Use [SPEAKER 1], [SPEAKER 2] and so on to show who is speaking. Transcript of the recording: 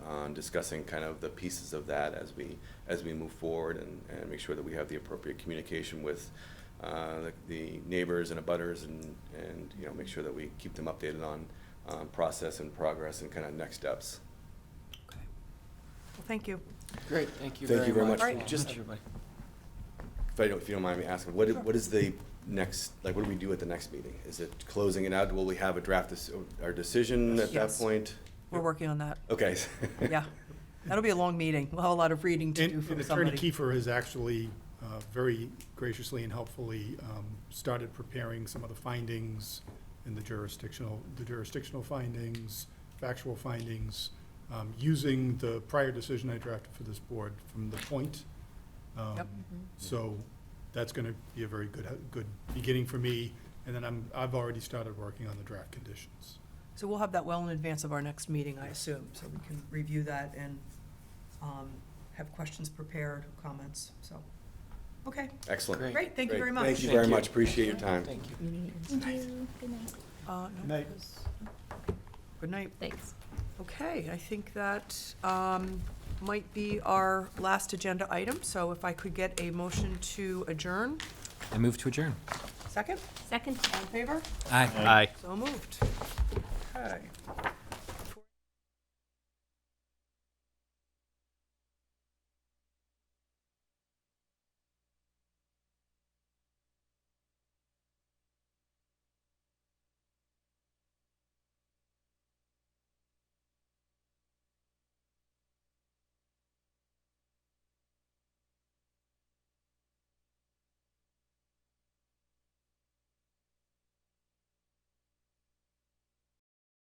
[SPEAKER 1] on discussing kind of the pieces of that as we, as we move forward and, and make sure that we have the appropriate communication with uh, the- the neighbors and abutters and, and, you know, make sure that we keep them updated on um, process and progress and kind of next steps.
[SPEAKER 2] Well, thank you.
[SPEAKER 3] Great, thank you
[SPEAKER 1] Thank you very
[SPEAKER 3] very much.
[SPEAKER 2] much.
[SPEAKER 3] for
[SPEAKER 1] Just-
[SPEAKER 3] everybody.
[SPEAKER 1] If I don't, if you don't mind me asking, what, what is the next, like, what do we do at the next meeting? Is it closing it out? Will we have a draft, dec- our decision at that
[SPEAKER 2] Yes.
[SPEAKER 1] point?
[SPEAKER 2] We're working on that.
[SPEAKER 1] Okay.
[SPEAKER 2] Yeah. That'll be a long meeting. We'll have a lot of reading to
[SPEAKER 4] And
[SPEAKER 2] do from
[SPEAKER 4] and Attorney
[SPEAKER 2] somebody.
[SPEAKER 4] Kiefer has actually uh, very graciously and helpfully um, started preparing some of the findings and the jurisdictional, the jurisdictional findings, factual findings, um, using the prior decision I drafted for this board from the point. Um,
[SPEAKER 2] Yep.
[SPEAKER 4] So that's going to be a very good, good beginning for me. And then I'm, I've already started working on the draft conditions.
[SPEAKER 2] So we'll have that well in advance of our next meeting, I assume, so we can review that and um, have questions prepared, comments, so. Okay,
[SPEAKER 1] Excellent.
[SPEAKER 3] Great.
[SPEAKER 2] great, thank you
[SPEAKER 1] Great.
[SPEAKER 2] very much.
[SPEAKER 1] Thank you
[SPEAKER 3] Thank
[SPEAKER 1] very
[SPEAKER 3] you.
[SPEAKER 1] much. Appreciate your time.
[SPEAKER 3] Thank you.
[SPEAKER 5] Thank you. Good night.
[SPEAKER 2] Uh, no,
[SPEAKER 4] Good night.
[SPEAKER 2] because- Good night.
[SPEAKER 5] Thanks.
[SPEAKER 2] Okay, I think that um, might be our last agenda item, so if I could get a motion to adjourn.
[SPEAKER 3] I move to adjourn.
[SPEAKER 2] Second,
[SPEAKER 5] Second.
[SPEAKER 2] all in favor?
[SPEAKER 3] Aye. Aye.
[SPEAKER 2] So moved. Okay.